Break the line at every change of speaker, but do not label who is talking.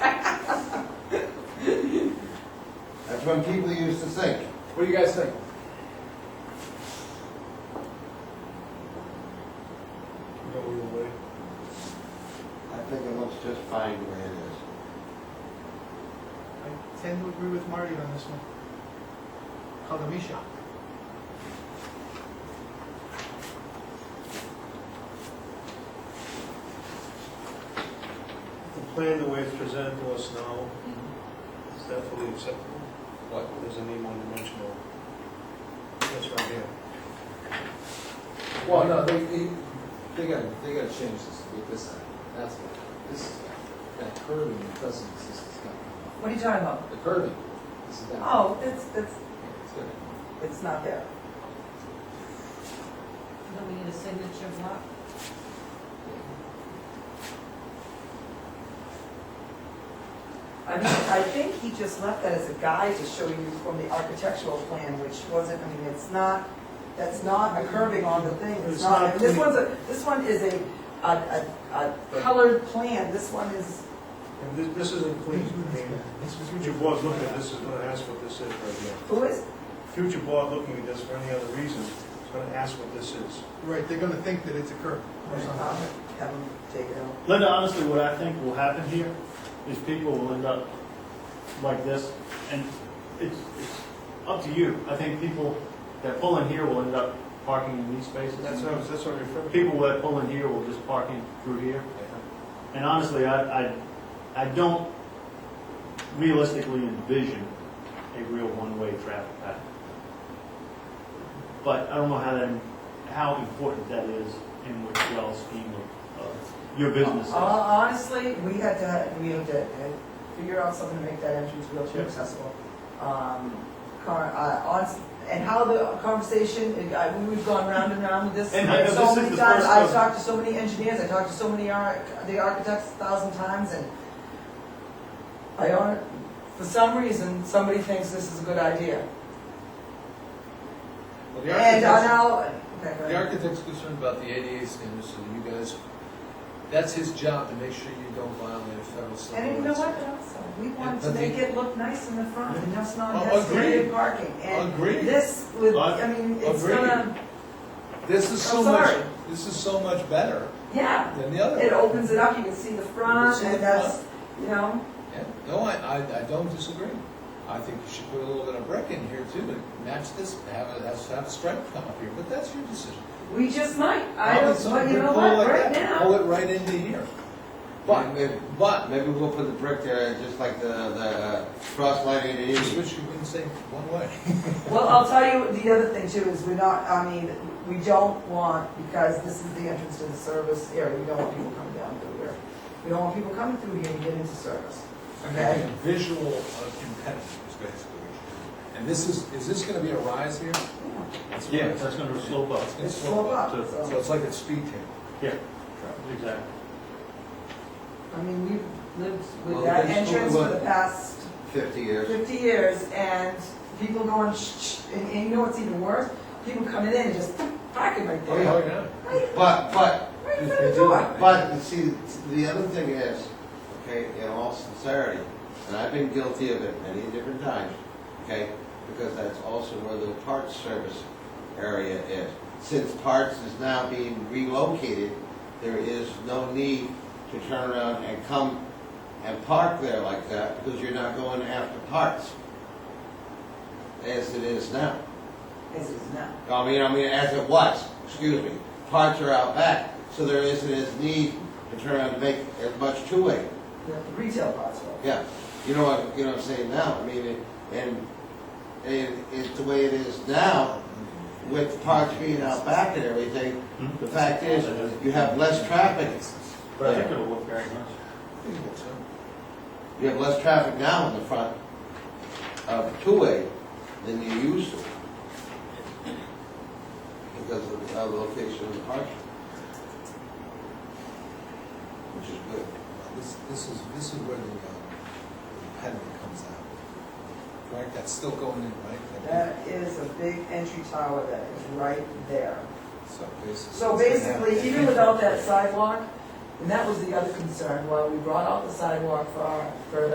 That's when people used to think.
What do you guys think?
I think it looks just fine the way it is.
I tend to agree with Marty on this one. Kagamisha.
The plan, the way it's presented to us now, is definitely acceptable.
What?
There's any one dimensional. That's right here.
Well, no, they, they, they gotta, they gotta change this, to get this out. That's what, this, that curving that doesn't exist, it's got,
What are you talking about?
the curving, this is that.
Oh, it's, it's,
It's good.
it's not there.
Don't we need a signature block?
I mean, I think he just left that as a guide to show you from the architectural plan, which wasn't, I mean, it's not, that's not a curving on the thing, it's
It's
not,
not
this
clean.
one's a, this one is a, a, a, a colored plan, this one is,
And thi- this isn't clean. I mean, Future board looking at this is gonna ask what this is right here.
who is?
Future board looking at this for any other reason, is gonna ask what this is.
Right, they're gonna think that it's a curve or
Um,
something.
Have him take it out.
Linda, honestly, what I think will happen here is people will end up like this, and it's, it's up to you. I think people that pull in here will end up parking in these spaces.
That's what, I was- that's what I referred to.
People that pull in here will just park in through here. And honestly, I, I, I don't realistically envision a real one-way traffic pattern. But I don't know how that, how important that is in the overall scheme of, of your business. is.
Hon- Uh, Honestly, we had to, we had to uh, figure out something to make that entrance wheelchair accessible. Um, car, uh, on, and how the conversation, uh, I- we've gone round and round with this
And I know
so
this is
many
the
times.
first
I've
one.
talked to so many engineers, I talked to so many ar, the architects a thousand times and I don't, for some reason, somebody thinks this is a good idea.
Well, the
And I
architect's,
now, okay, go
the
ahead.
architect's concerned about the ADA standards, so you guys, that's his job to make sure you don't violate a federal civil rights.
And you know what, also, we wanted to
but
make
the-
it look nice in the front, and that's not
Oh,
necessarily
agreed.
parking. And
Agreed.
this would,
Ag-
I mean, it's
agreed.
gonna,
This is so
I'm
much,
sorry.
this is so much better
yeah,
than the other.
it opens it up, you can see the
You can
front,
see the
and that's, you know,
Yeah, no, I, I, I don't disagree. I think you should put a little bit of brick in here too, to match this, have a, have a stripe come up here, but that's your decision.
we just might, I
Now,
don't,
it's
but
something
you know
pull
what,
like
right
that, Pull
now,
it right into here.
Yeah,
But,
maybe.
but,
Maybe we'll put the brick there, just like the, the cross lighting it
just
is.
wish you wouldn't say one way.
well, I'll tell you, the other thing too is we're not, I mean, we don't want, because this is the entrance to the service area, we don't want people coming down through here. We don't want people coming through here to get into service, okay?
Visual uh, impediment is basically what you And this is, is this gonna be a rise here? It's a
Yeah,
rise.
that's gonna slope up.
It's gonna
It's slow
slope up.
up,
to-
so.
So it's like a speed table.
Yeah, exactly.
I mean, we've lived
Well,
with
that's what
that
we
entrance for
want.
the past
Fifty years.
fifty years, and people going shh, shh, and, and you know what's even worse? People coming in and just parking right
Oh,
there,
yeah. But, but,
right in front of the door.
But, you see, the other thing is, okay, in all sincerity, and I've been guilty of it many different times, okay, because that's also where the parts service area is. Since parts is now being relocated, there is no need to turn around and come and park there like that, because you're not going after parts as it is now.
This is not.
I mean, I mean, as it was, excuse me, parts are out back, so there isn't as need to turn around and make as much two-way,
the retail parts were.
yeah. You know what, you know what I'm saying now, I mean, it- and, and it's the way it is now, with parts being out back and everything,
Hmm?
the fact is, you have less traffic,
But I think it'll look very nice.
you have less traffic now in the front of two-way than you used to. Because of the uh, location of the parking. Which is good.
This, this is, this is where the uh, impediment comes out. Right, that's still going in, right?
That is a big entry tower that is right there.
So basically.
So basically, even without that sidewalk, and that was the other concern, while we brought out the sidewalk for, our- for